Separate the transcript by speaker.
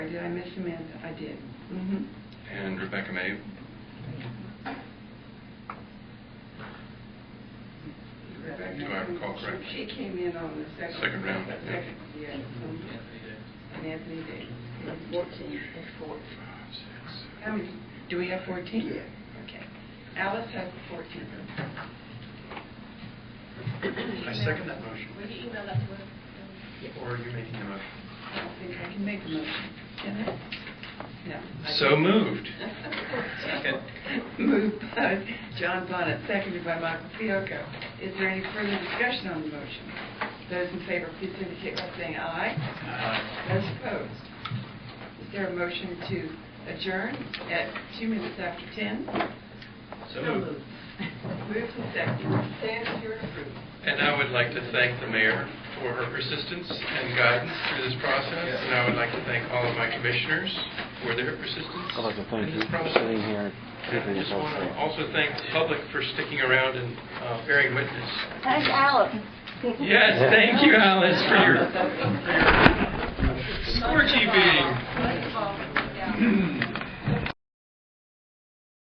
Speaker 1: I miss Amanda, I did. Mhm.
Speaker 2: And Rebecca May, Rebecca, do I recall
Speaker 1: She
Speaker 2: correctly?
Speaker 1: came in on the second.
Speaker 2: Second round, yeah.
Speaker 1: Second, yeah. And Anthony Davis.
Speaker 3: Fourteen.
Speaker 2: Five, six,
Speaker 1: How many, do we have 14?
Speaker 3: Yeah.
Speaker 1: Okay. Alice has 14.
Speaker 4: I second that motion.
Speaker 5: Will you email that to us?
Speaker 4: Or are you making a motion?
Speaker 1: I don't think I can make a motion, can I? No. I
Speaker 2: So
Speaker 1: don't.
Speaker 2: moved.
Speaker 4: Second.
Speaker 1: Moved by John Bonnet, seconded by Michael Fiocco. Is there any further discussion on the motion? Those in favor, please indicate by saying aye. Those opposed? Is there a motion to adjourn at two minutes after 10?
Speaker 4: So moved.
Speaker 1: Moved and seconded. Stand here approved.
Speaker 2: And I would like to thank the mayor for her persistence and guidance through this process. And I would like to thank all of my commissioners for their persistence
Speaker 6: I'd like to thank
Speaker 2: in
Speaker 6: you
Speaker 2: this
Speaker 6: for
Speaker 2: process.
Speaker 6: sitting here.
Speaker 2: And I just want to also thank the public for sticking around and uh, bearing witness.
Speaker 3: Thank Alice.
Speaker 2: Yes, thank you, Alice, for your scorchy beating.
Speaker 5: Let's call, yeah.